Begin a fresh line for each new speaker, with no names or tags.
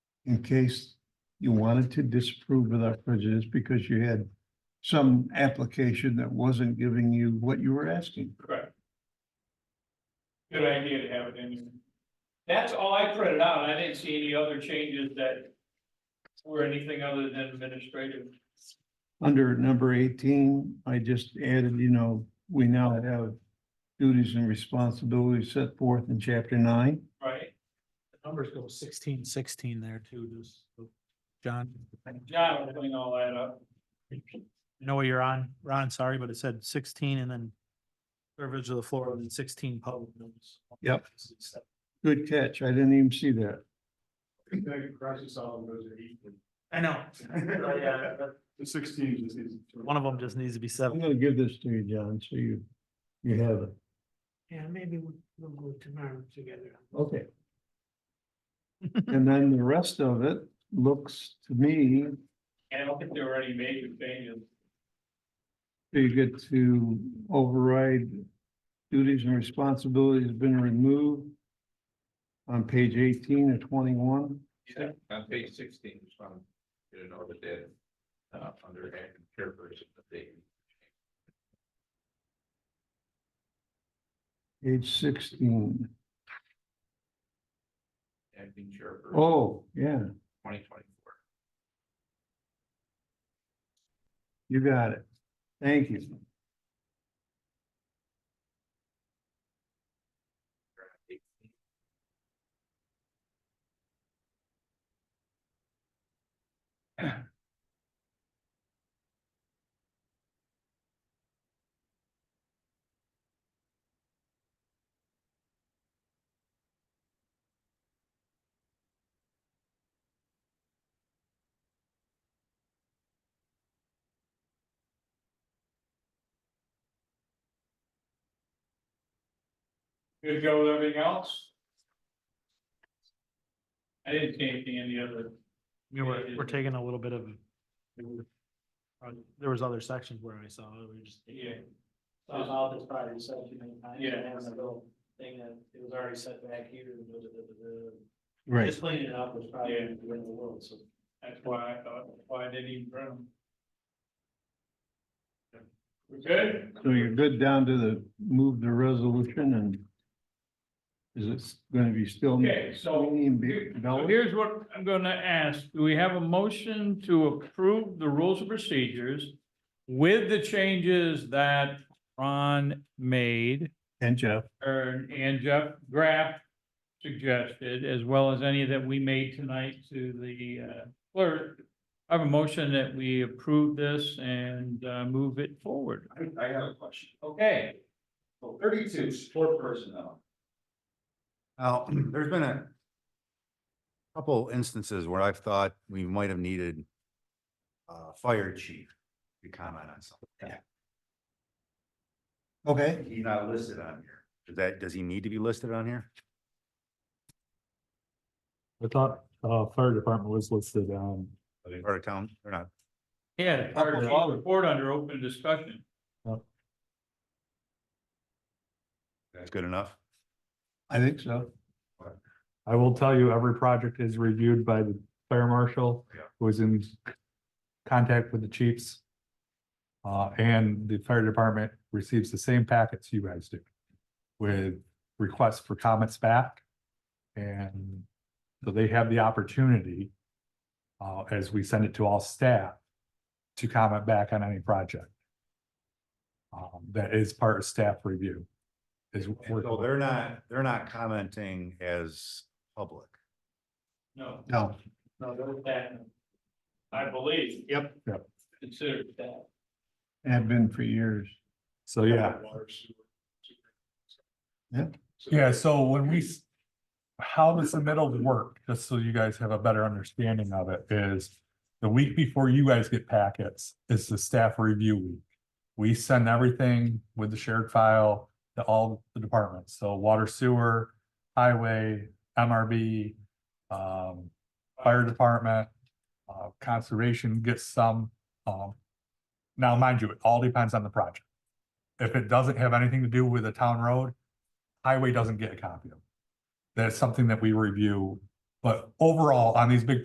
in case you wanted to disapprove without prejudice because you had some application that wasn't giving you what you were asking.
Correct. Good idea to have it in there. That's all I printed out, I didn't see any other changes that were anything other than administrative.
Under number eighteen, I just added, you know, we now have duties and responsibilities set forth in chapter nine.
Right,
The Numbers go sixteen, sixteen there too, just. John,
John will clean all that up.
I know where you're on, Ron, sorry, but it said sixteen and then. Privilege of the floor and then sixteen public notice.
Yep. Good catch. I didn't even see that.
I know. Yeah,
The sixteen is easy.
One of them just needs to be
I'm
seven.
gonna give this to you, John, so you, you have it.
Yeah, maybe we'll, we'll go tomorrow together.
Okay. And then the rest of it looks to me,
And I don't think there were any major changes.
you get to override duties and responsibilities has been removed on page eighteen or twenty-one.
Yeah, on page sixteen, just want you to know that that, uh, under active care person, that they.
Page sixteen.
Acting chairperson,
Oh, yeah,
twenty twenty-four.
you got it. Thank you.
Good to go with everything else? I didn't see anything in the other,
We were, we're taking a little bit of. uh, There was other sections where I saw it, we were just.
yeah,
I was out this Friday, so too many times,
Yeah.
and having a little thing that it was already set back here, and da, da, da, da, da.
Right.
Just cleaning it up was probably
Yeah.
the end of the world, so.
that's why I thought, why I didn't even print them. We're good?
So you're good down to the, move the resolution and is it gonna be still?
Okay, so
Being
Here- So
developed?
here's what I'm gonna ask. Do we have a motion to approve the rules of procedures with the changes that Ron made
And Jeff,
er, and Jeff Graff suggested, as well as any that we made tonight to the uh, clerk? I have a motion that we approve this and uh, move it forward.
I, I have a question.
Okay,
So Thirty-two, support personnel.
Now, there's been a couple instances where I've thought we might have needed uh fire chief to comment on something.
okay.
He's not listed on here. Does that, does he need to be listed on here?
I thought, uh, fire department was listed, um,
Are they part of town or not?
yeah, the fire chief report under open discussion.
That's good enough.
I think so.
I will tell you, every project is reviewed by the fire marshal.
Yeah.
Who is in contact with the chiefs. Uh, and the fire department receives the same packets you guys do. With requests for comments back. And so they have the opportunity. Uh, as we send it to all staff. To comment back on any project. Um, that is part of staff review. Is.
And So they're not, they're not commenting as public.
No,
No,
no, there was that. I believe.
Yep.
Yep.
Considered that.
have been for years.
So, yeah.
Water, sewer.
Yeah.
Yeah, so when we, s- how the submittal work, just so you guys have a better understanding of it, is the week before you guys get packets is the staff review week. We send everything with the shared file to all the departments, so water sewer, highway, MRB, um, fire department, uh, conservation gets some, um, now mind you, it all depends on the project. If it doesn't have anything to do with a town road, highway doesn't get a copy of. it. That's something that we review, but overall, on these big